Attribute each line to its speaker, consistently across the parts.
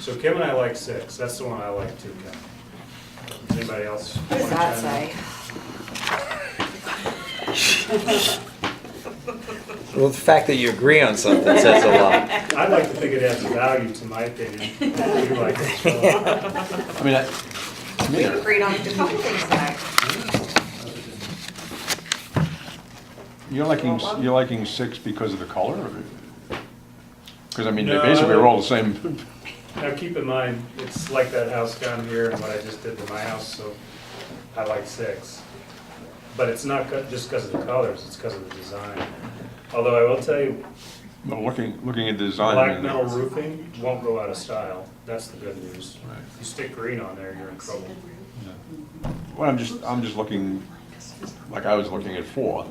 Speaker 1: So Kim and I like six, that's the one I like too, Kim. Does Anybody else?
Speaker 2: What does
Speaker 1: wanna
Speaker 2: that
Speaker 1: chime in?
Speaker 2: say?
Speaker 3: Well, the fact that you agree on something says a lot.
Speaker 1: I'd like to think it adds value to my opinion. You like it, so-
Speaker 4: I mean, I, to me,
Speaker 2: We
Speaker 4: they're-
Speaker 2: agreed on a couple things tonight.
Speaker 4: you're liking, you're liking six because of the color? Because I mean, they
Speaker 1: No.
Speaker 4: basically are all the same.
Speaker 1: Now, keep in mind, it's like that house down here and what I just did to my house, so I like six. But it's not co- just because of the colors, it's because of the design. Although I will tell you,
Speaker 4: But looking, looking at the design.
Speaker 1: black
Speaker 4: and-
Speaker 1: metal roofing won't go out of style, that's the good news.
Speaker 4: Right.
Speaker 1: You stick green on there, you're in trouble.
Speaker 4: Yeah. Well, I'm just, I'm just looking, like I was looking at four,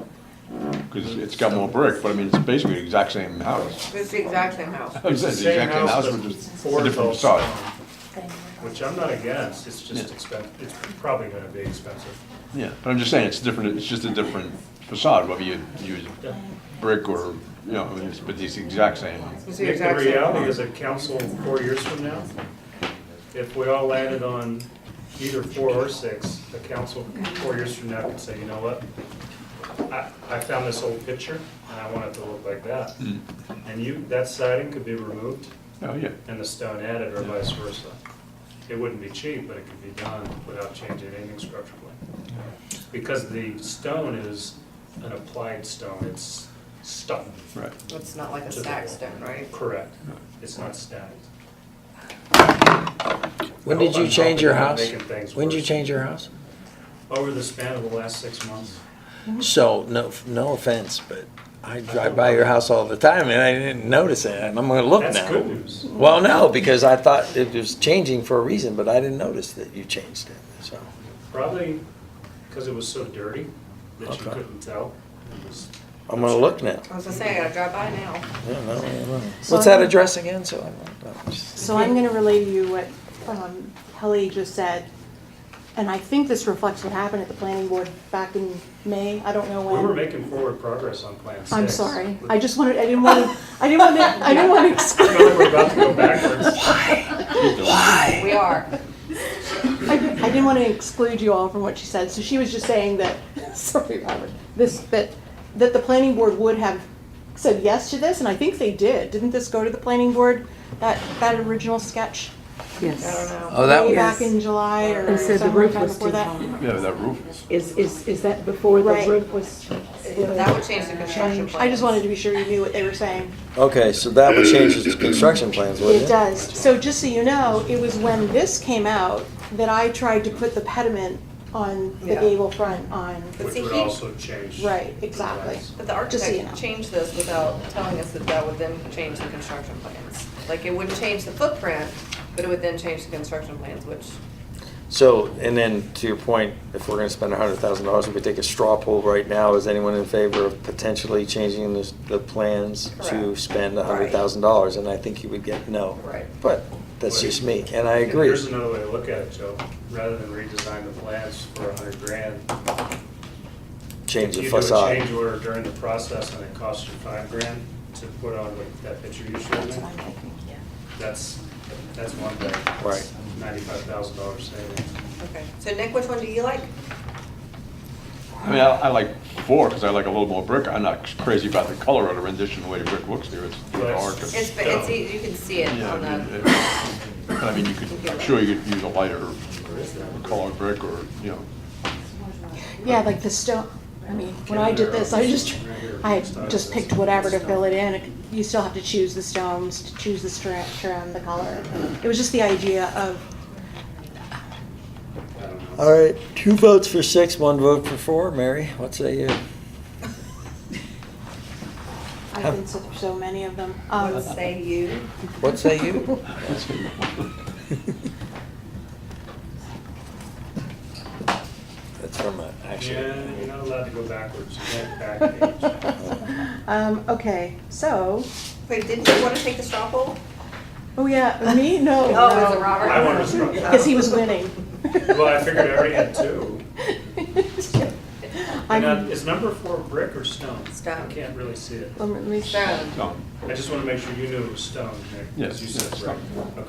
Speaker 4: because it's got more brick, but I mean, it's basically the exact same house.
Speaker 2: It's the exact same house.
Speaker 4: It's the exact same house,
Speaker 1: but
Speaker 4: but just
Speaker 1: four
Speaker 4: a different
Speaker 1: adults.
Speaker 4: facade.
Speaker 1: Which I'm not against, it's just
Speaker 4: Yeah.
Speaker 1: expensive, it's probably gonna be expensive.
Speaker 4: Yeah, but I'm just saying, it's different, it's just a different facade, whether you use
Speaker 1: Yeah.
Speaker 4: brick or, you know, I mean, it's- but it's the exact same.
Speaker 2: It's the
Speaker 1: Nick, the
Speaker 2: exact same
Speaker 1: reality
Speaker 2: house.
Speaker 1: is that council four years from now, if we all landed on either four or six, the council four years from now could say, you know what? I, I found this old picture and I want it to look like that.
Speaker 4: Mm.
Speaker 1: And you, that siding could be removed
Speaker 4: Oh, yeah.
Speaker 1: and the stone added or vice versa. It wouldn't be cheap, but it could be done without changing anything structurally. Because the stone is an applied stone, it's stuck.
Speaker 4: Right.
Speaker 2: It's not like a
Speaker 1: to the
Speaker 2: stack
Speaker 1: wall.
Speaker 2: stone, right?
Speaker 1: Correct. It's not stacked.
Speaker 3: When did you change your house?
Speaker 1: Making things
Speaker 3: When did you
Speaker 1: worse.
Speaker 3: change your house?
Speaker 1: Over the span of the last six months,
Speaker 3: So, no, no offense, but I drive by your house all the time and I didn't notice it and I'm gonna look now.
Speaker 1: that's good news.
Speaker 3: Well, no, because I thought it was changing for a reason, but I didn't notice that you changed it, so.
Speaker 1: Probably because it was so dirty that you
Speaker 3: Okay.
Speaker 1: couldn't tell. It was-
Speaker 3: I'm gonna look now.
Speaker 2: I was gonna say, I gotta drive by now.
Speaker 3: I don't know, I don't know.
Speaker 5: So
Speaker 3: What's that
Speaker 5: I'm-
Speaker 3: address again, so I don't know.
Speaker 5: So I'm gonna relay to you what um, Kelly just said, and I think this reflects what happened at the planning board back in May, I don't know
Speaker 1: We were
Speaker 5: when.
Speaker 1: making forward progress on Plan 6.
Speaker 5: I'm sorry, I just wanted, I didn't want to, I didn't want to, I didn't want to
Speaker 1: I feel like we're
Speaker 5: exclude,
Speaker 1: about to go backwards.
Speaker 2: We are.
Speaker 5: I didn't- I didn't want to exclude you all from what she said, so she was just saying that, sorry, Robert, this, that, that the planning board would have said yes to this, and I think they did, didn't this go to the planning board, that, that original sketch?
Speaker 2: I don't
Speaker 6: Yes.
Speaker 2: know.
Speaker 3: Oh, that
Speaker 5: Way
Speaker 3: was,
Speaker 5: back in July or
Speaker 6: And so the
Speaker 5: somewhere
Speaker 6: roof
Speaker 5: time
Speaker 6: was
Speaker 5: before
Speaker 6: too
Speaker 5: that?
Speaker 6: tall.
Speaker 4: Yeah, that roof is.
Speaker 6: Is, is, is that before the
Speaker 5: Right.
Speaker 6: roof was?
Speaker 2: That would change the construction plan.
Speaker 5: I just wanted to be sure you knew what they were saying.
Speaker 3: okay, so that would change his construction plans, wouldn't it?
Speaker 5: It does. So just so you know, it was when this came out that I tried to put the pediment on the
Speaker 2: Yeah.
Speaker 5: gable front on,
Speaker 2: But
Speaker 1: Which
Speaker 2: see,
Speaker 1: would
Speaker 2: he-
Speaker 1: also change.
Speaker 5: right, exactly.
Speaker 2: But the
Speaker 5: Just so you know.
Speaker 2: architect changed this without telling us that that would then change the construction plans. Like, it wouldn't change the footprint, but it would then change the construction plans, which,
Speaker 3: So, and then to your point, if we're gonna spend a hundred thousand dollars, if we take a straw poll right now, is anyone in favor of potentially changing the, the plans to
Speaker 2: Correct.
Speaker 3: spend a hundred
Speaker 2: Right.
Speaker 3: thousand dollars? And I think you would get no.
Speaker 2: Right.
Speaker 3: But that's just me, and I agree.
Speaker 1: Here's another way to look at it, Joe. Rather than redesign the plans for a hundred grand,
Speaker 3: Change the
Speaker 1: You do a change
Speaker 3: facade.
Speaker 1: order during the process and it costs you five grand to put on what that picture you showed me. That's, that's one thing.
Speaker 3: Right.
Speaker 1: Ninety-five thousand dollar savings.
Speaker 2: okay. So Nick, which one do you like?
Speaker 4: I mean, I, I like four because I like a little more brick. I'm not crazy about the color of the rendition, the way the brick looks there. It's
Speaker 1: Right.
Speaker 4: dark.
Speaker 2: It's,
Speaker 4: and-
Speaker 2: but it's, e- you can see it
Speaker 4: Yeah,
Speaker 2: on
Speaker 4: I mean,
Speaker 2: the,
Speaker 4: it- but I mean, you could, I'm sure you could use a lighter colored brick or, you know,
Speaker 5: Yeah, like the stone, I mean, when I did this, I just, I just picked whatever to fill it in. You still have to choose the stones, to choose the stri- trim, the color. It was just the idea of,
Speaker 1: I don't know.
Speaker 3: All right, two votes for six, one vote for four. Mary, what say you?
Speaker 5: I've been to so many of them. Um,
Speaker 2: what say you?
Speaker 3: What say you? That's from an
Speaker 1: Yeah, you're
Speaker 3: action.
Speaker 1: not allowed to go backwards. You can't back page.
Speaker 5: Um, okay, so,
Speaker 2: Wait, didn't you want to take the straw poll?
Speaker 5: oh yeah, me? No.
Speaker 2: Oh, is it
Speaker 5: no.
Speaker 2: Robert?
Speaker 1: I wanted to straw poll.
Speaker 5: Because he was winning.
Speaker 1: Well, I figured I already had two. And uh,
Speaker 5: I'm-
Speaker 1: is number four brick or stone?
Speaker 2: Stone.
Speaker 1: I can't really see it.
Speaker 5: Let me- let me-
Speaker 2: Stone.
Speaker 4: um,
Speaker 1: I just want to make sure you knew it was stone, Nick. 'cause
Speaker 4: Yes,
Speaker 1: You said
Speaker 4: yes,
Speaker 1: brick.
Speaker 4: stone.
Speaker 1: Okay.